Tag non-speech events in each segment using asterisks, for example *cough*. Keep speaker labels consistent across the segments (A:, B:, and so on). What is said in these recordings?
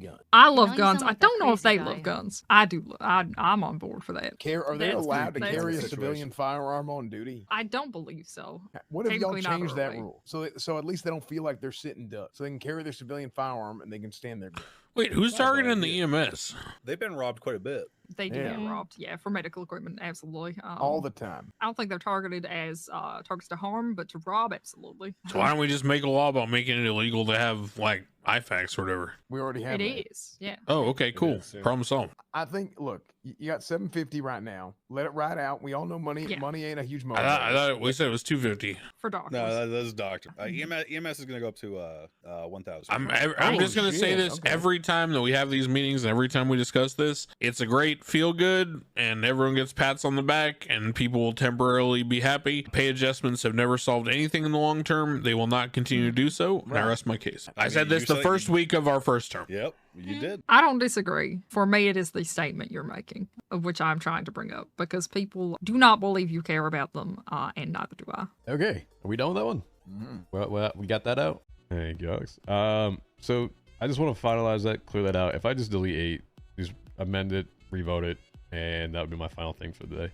A: gun.
B: I love
C: you
B: guns.
C: sound
B: I
C: like that
B: don't know if they
C: crazy
B: love
C: guy.
B: guns. I do. lo- I, I'm on board for that.
A: Care, are they
B: That's-
A: allowed to
B: that's-
A: carry a
D: Situation.
A: civilian firearm on duty?
B: I don't believe so.
A: What if y'all
B: Technically not,
A: change
B: are
A: that
B: we?
A: rule so that, so at least they don't feel like they're sitting duck, so they can carry their civilian firearm and they can
B: *laughs*
A: stand there.
E: Wait, who's
D: Not a bad
E: targeting the E
D: idea.
E: EMS?
D: They've been robbed quite a bit.
B: They do
A: Yeah.
B: get robbed. Yeah, for medical equipment, absolutely. Um,
A: all the time.
B: I don't think they're targeted as uh, targets to harm, but to rob, absolutely.
E: So why don't we just make a law about making it illegal to have like IFAX or whatever?
A: We already have.
B: It
A: that.
B: is. Yeah.
E: Oh, okay, cool.
D: is, yeah.
E: Problem solved.
A: I think. Look, y- you got seven fifty right now. Let it ride out. We all know money.
B: Yeah.
A: Money ain't a huge
E: I
A: motivator.
E: thought, I thought we said it was two fifty.
B: For doctors.
D: No, that, that's doctor. Uh, EMS, EMS is going to go up to uh, uh, 1,000.
E: I'm ev- I'm
A: Oh,
E: just gonna say
A: shit,
E: this
A: okay.
E: every time that we have these meetings and every time we discuss this, it's a great feel good and everyone gets pats on the back and people will temporarily be happy. Pay adjustments have never solved anything in the long term. They will not continue to do so. And I
A: Right.
E: rest my case.
D: I
E: I, said
D: mean,
E: this
D: you
E: the
D: said-
E: first week of our first term.
D: Yep, you did.
B: I don't disagree. For me, it is the statement you're making, of which I'm trying to bring up, because people do not believe you care about them, uh, and neither do I.
F: Okay, are we done with that one?
D: Mm-hmm.
A: Mhm.
F: Well, well we got that out. Hey, Gox. Um, so I just want to finalize that, clear that out. If I just delete eight, just amend it, revote it, and that would be my final thing for the day.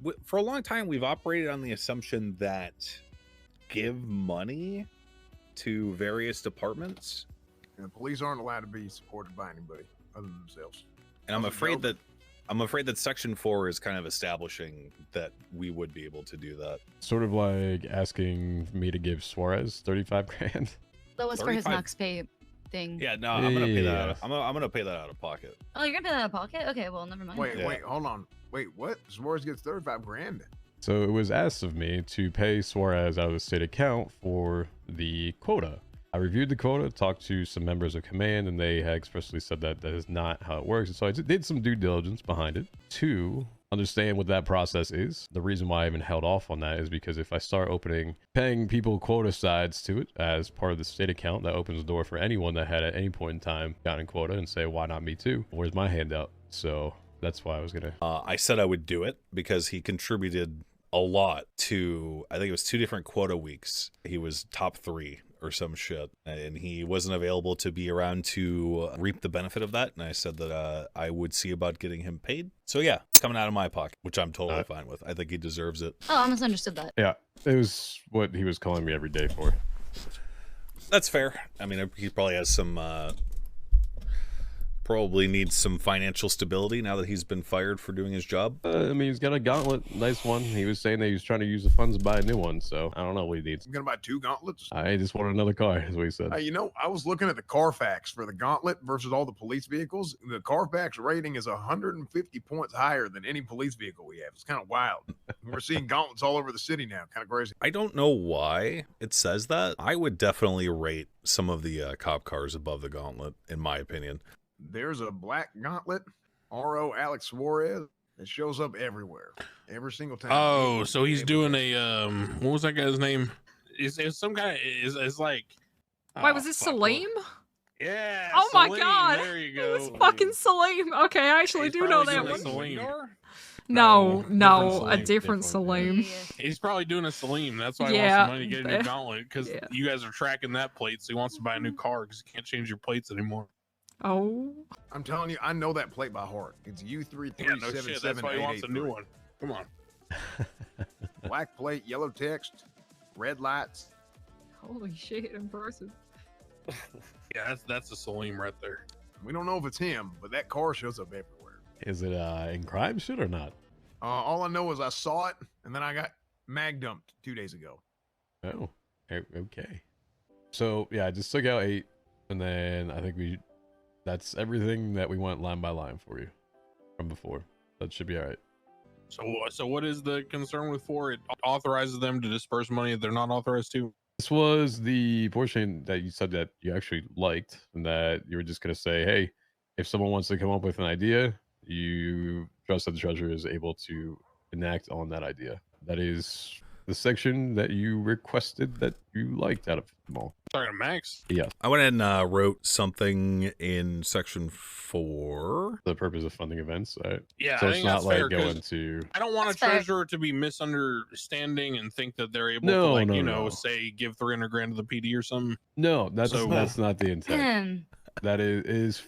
D: W- For a long time, we've operated on the assumption that give money to various departments.
A: And the police aren't allowed to be supported by anybody other than themselves.
D: And I'm
A: That's a
D: afraid
A: joke.
D: that I'm afraid that Section 4 is kind of establishing that we would be able to do that.
F: Sort of like asking me to give Suarez 35 grand.
C: That was for his
D: 35.
C: Knox pay thing.
D: Yeah, no, I'm going to pay that out.
F: Yeah.
D: Of, I'm, gonna, I'm gonna pay that out of pocket.
C: Oh, you're gonna pay that out of pocket? Okay, well, never mind.
A: Wait,
D: Yeah.
A: wait, hold on. Wait, what? Suarez gets thirty-five grand.
F: So it was asked of me to pay Suarez out of the state account for the quota. I reviewed the quota, talked to some members of command, and they had expressly said that that is not how it works. And so I did some due diligence behind it to understand what that process is. The reason why I even held off on that is because if I start opening paying people quota sides to it as part of the state account, that opens the door for anyone that had at any point in time gotten quota and say, why not me too? Where's my handout? So that's why I was going to
D: Uh, I said I would do it because he contributed a lot to, I think it was two different quota weeks. He was top three or some shit, and he wasn't available to be around to reap the benefit of that. And I said that uh, I would see about getting him paid. So yeah, it's coming out of my pocket, which I'm totally
F: Alright.
D: fine with. I think he deserves it.
C: Oh, I misunderstood that.
F: Yeah, it was what he was calling me every day for.
D: That's fair. I mean, he probably has some, uh, probably needs some financial stability now that he's been fired for doing his job.
F: Uh, I mean, he's got a gauntlet, nice one. He was saying that he was trying to use the funds to buy a new one, so I don't know what he needs.
A: I'm gonna buy two gauntlets.
F: I just want another car, *laughs* is what he said.
A: Hey, Uh, you know, I was looking at the Carfax for the Gauntlet versus all the police vehicles. The Carfax rating is 150 points higher than any police vehicle we have. It's kind of wild.
E: *laughs*
A: We're seeing gauntlets all over the city now. Kind of crazy.
D: I don't know why it says that. I would definitely rate some of the uh, cop cars above the Gauntlet, in my opinion.
A: There's a black gauntlet, RO Alex Suarez, that shows up everywhere, every single time.
E: Oh, so he's doing a um. What was that guy's name? Is is some guy? Is is like?
B: Wait,
E: Ah,
B: was this
E: fuck, what-
B: Salim?
E: Yeah.
B: Oh my
E: Salim,
B: God, *laughs*
E: There you
B: It
E: go.
B: was fucking Salim. Okay, I actually
E: He's
B: do know
E: probably
B: that
E: doing
B: one.
E: a Salim.
B: No, no,
F: different
B: a
F: Salim,
B: different
F: different.
B: Salim.
E: *laughs*
C: *clears throat*
E: He's probably doing a Salim. That's why he
B: Yeah,
E: wants the money to get a
B: *laughs*
E: new
B: that-
E: gauntlet because
B: yeah.
E: you guys are tracking that plate. So he wants to buy a new car because he can't change your plates anymore.
B: Oh,
A: I'm telling you, I know that plate by heart. It's
E: Yeah, no shit. That's why he wants a new
A: U3377.
E: one. Come on.
A: black plate, yellow text, red lights.
B: holy shit! Impressive.
E: Yeah, that's that's a Salim right there.
A: We don't know if it's him, but that car shows up everywhere.
F: Is it uh, in crime shit or not?
A: Uh, all I know is I saw it, and then I got mag dumped two days ago.
F: Oh, o- okay. So yeah, I just took out eight, and then I think we, that's everything that we went line by line for you from before. That should be all right.
E: So so what is the concern with four? It authorizes them to disperse money that they're not authorized to.
F: This was the portion that you said that you actually liked, and that you were just going to say, hey, if someone wants to come up with an idea, you trust that the treasurer is able to enact on that idea. That is the section that you requested that you liked out of them all.
E: Sorry, Max.
D: I went and uh, wrote something in section four.
F: For the purpose of funding events, right?
E: Yeah,
F: so
E: I
F: it's
E: think
F: not
E: that's
F: like
E: fair 'cause
F: going to.
E: I don't want
C: That's
E: a
C: fair.
E: treasurer to be misunderstanding and think that they're able to,
F: No,
E: like,
F: no,
E: you know,
F: no.
E: say give 300 grand to the PD or something.
F: No, that's
E: So-
F: that's not the intent.
C: Damn.
F: that is, is